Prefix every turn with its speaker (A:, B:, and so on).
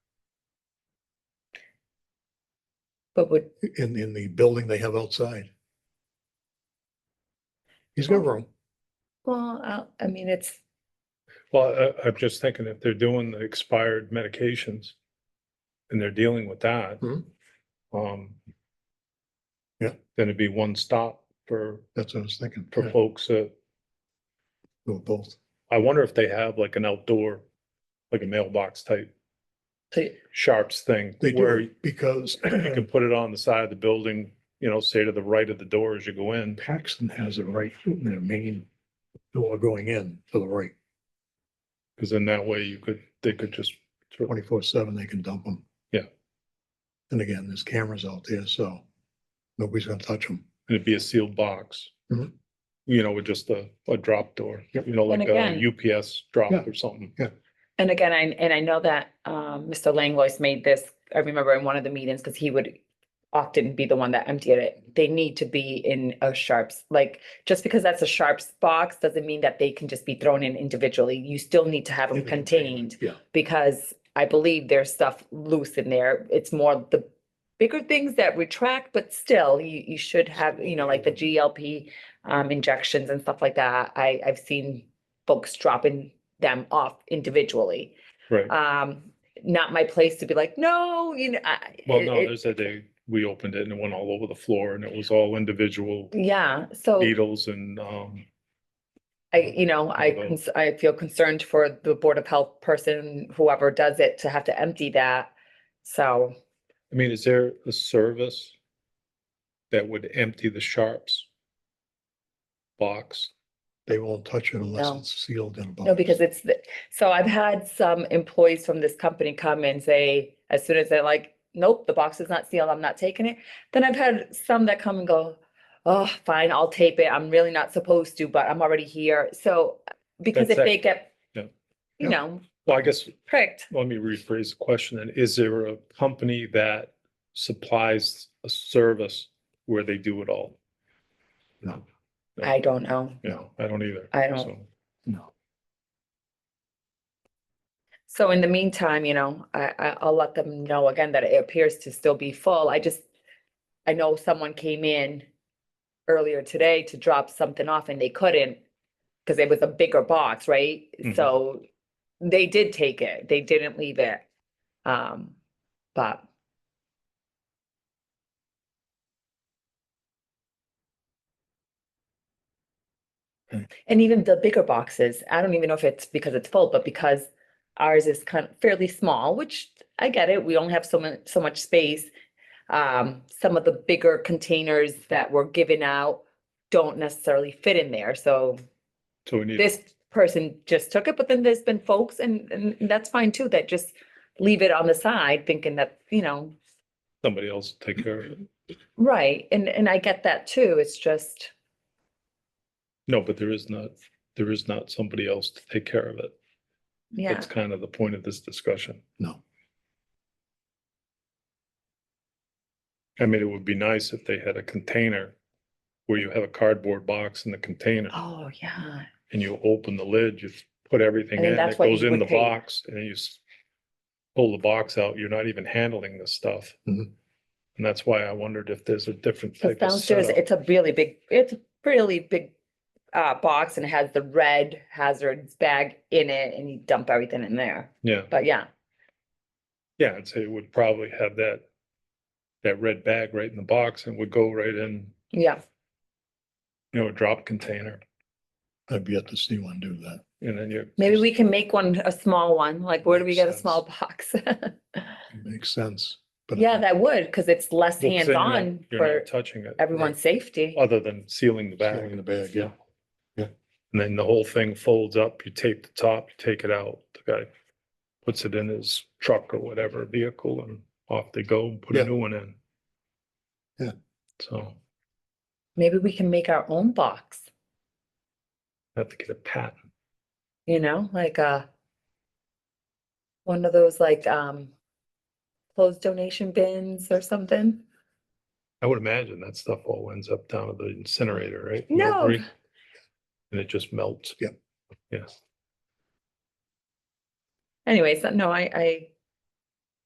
A: But would,
B: in, in the building they have outside. He's got room.
A: well,
C: uh,
A: I- I mean, it's,
D: Well, I, I'm just thinking if they're doing the expired medications and they're dealing with that.
B: Mhm.
D: Um.
B: Yeah.
D: Then it'd be one stop for,
B: That's what I was thinking.
D: for
B: Yeah,
D: folks that,
B: do it both.
D: I wonder if they have like an outdoor, like a mailbox type
A: they-
D: sharps thing.
B: They
D: Where
B: do
D: you
B: because
D: can put it on the side of the building, you know, say to the right of the door as you go in.
B: Paxton has it right in their main door going in to the right,
D: Cause then that way you could, they could just,
B: twenty-four seven, they can dump them.
D: Yeah.
B: And again, there's cameras out there, so nobody's gonna touch them.
D: and it'd be a sealed box.
B: Mhm.
D: You know, with just a, a drop door,
B: Yep.
D: you know,
A: And
D: like a UPS drop
B: Yeah.
D: or something.
C: And again, I, and I know that um, Mr. Langlois made this, I remember in one of the meetings, because he would often be the one that emptied it. They need to be in a Sharps, like, just because that's a Sharps box doesn't mean that they can just be thrown in individually. You still need to have them
B: In the container,
C: contained.
B: yeah.
C: Because I believe there's stuff loose in there. It's more the bigger things that retract, but still, you, you should have, you know, like the GLP um, injections and stuff like that. I, I've seen folks dropping them off individually.
D: Right.
C: Um, not my place to be like, no, you know, I.
D: Well,
C: it-
D: no,
C: it-
D: there's that day we opened it and it went all over the floor and it was all individual
C: Yeah, so
D: needles and, um,
C: I, you know, I,
D: Although-
C: cons- I feel concerned for the Board of Health person, whoever does it, to have to empty that. So,
D: I mean, is there a service that would empty the sharps box?
B: They won't touch it unless
C: No.
B: it's sealed in a box.
C: no, because it's, the so I've had some employees from this company come and say, as soon as they're like, nope, the box is not sealed, I'm not taking it. Then I've had some that come and go, oh, fine, I'll tape it. I'm really not supposed to, but I'm already here. So, because if
D: That's
C: they
D: it.
C: get,
D: Yeah.
C: you know,
D: Well, I guess,
C: pricked,
D: let me rephrase the question. then. Is there a company that supplies a service where they do it all?
B: No,
C: I don't know.
D: Yeah, I don't either.
C: I don't.
D: So-
B: no.
C: So in the meantime, you know, I, I, I'll let them know again that it appears to still be full. I just, I know someone came in earlier today to drop something off and they couldn't because it was a bigger box, right?
D: Mhm.
C: So they did take it. They didn't leave it. Um, but
B: Okay.
C: and even the bigger boxes, I don't even know if it's because it's full, but because ours is kind of fairly small, which I get it. We only have so much, so much space. Um, some of the bigger containers that were given out don't necessarily fit in there. So
D: So we need.
C: this person just took it, but then there's been folks and, and that's fine too, that just leave it on the side thinking that, you know,
D: somebody else take care of it.
C: right. And, and I get that too. It's just,
D: No, but there is not, there is not somebody else to take care of it.
C: yeah,
D: That's kind of the point of this discussion.
B: No.
D: I mean, it would be nice if they had a container where you have a cardboard box in the container
C: oh, yeah.
D: and you open the lid, you put everything
C: I think
D: in, it
C: that's what
D: goes
C: you
D: in
C: would
D: the
C: pay.
D: box and you s- pull the box out, you're not even handling this stuff.
B: Mhm.
D: And that's why I wondered if there's a different
C: Because
D: type of
C: downstairs,
D: setup.
C: it's a really big, it's a really big uh, box and it has the red hazards bag in it and you dump everything in there.
D: Yeah,
C: But yeah,
D: yeah, I'd say it would probably have that, that red bag right in the box and would go right in
C: yeah.
D: you know, a drop container
B: I've yet to see one do that.
D: and then you.
C: Maybe we can make one, a small one. Like where do we
D: Makes
C: get a
D: sense.
C: small box?
B: It Makes sense. but I
C: Yeah,
B: don't-
C: that would, because it's less
D: Well, 'cause then you're not-
C: hands-on
D: You're
C: for
D: not touching it.
C: everyone's safety.
D: Other than sealing the
B: Bag in
D: bag.
B: the bag, yeah.
D: And then the whole thing folds up, you tape the top, you take it out, the guy puts it in his truck or whatever vehicle and off they go and put
B: Yeah.
D: a new one in.
B: Yeah.
D: So
C: Maybe we can make our own box,
D: have to get a patent.
C: you know, like uh one of those like um closed donation bins or something.
D: I would imagine that stuff all ends up down at the incinerator, right?
C: No.
D: Melbury? And it just melts.
B: Yep.
D: Yes.
C: Anyways, no, I I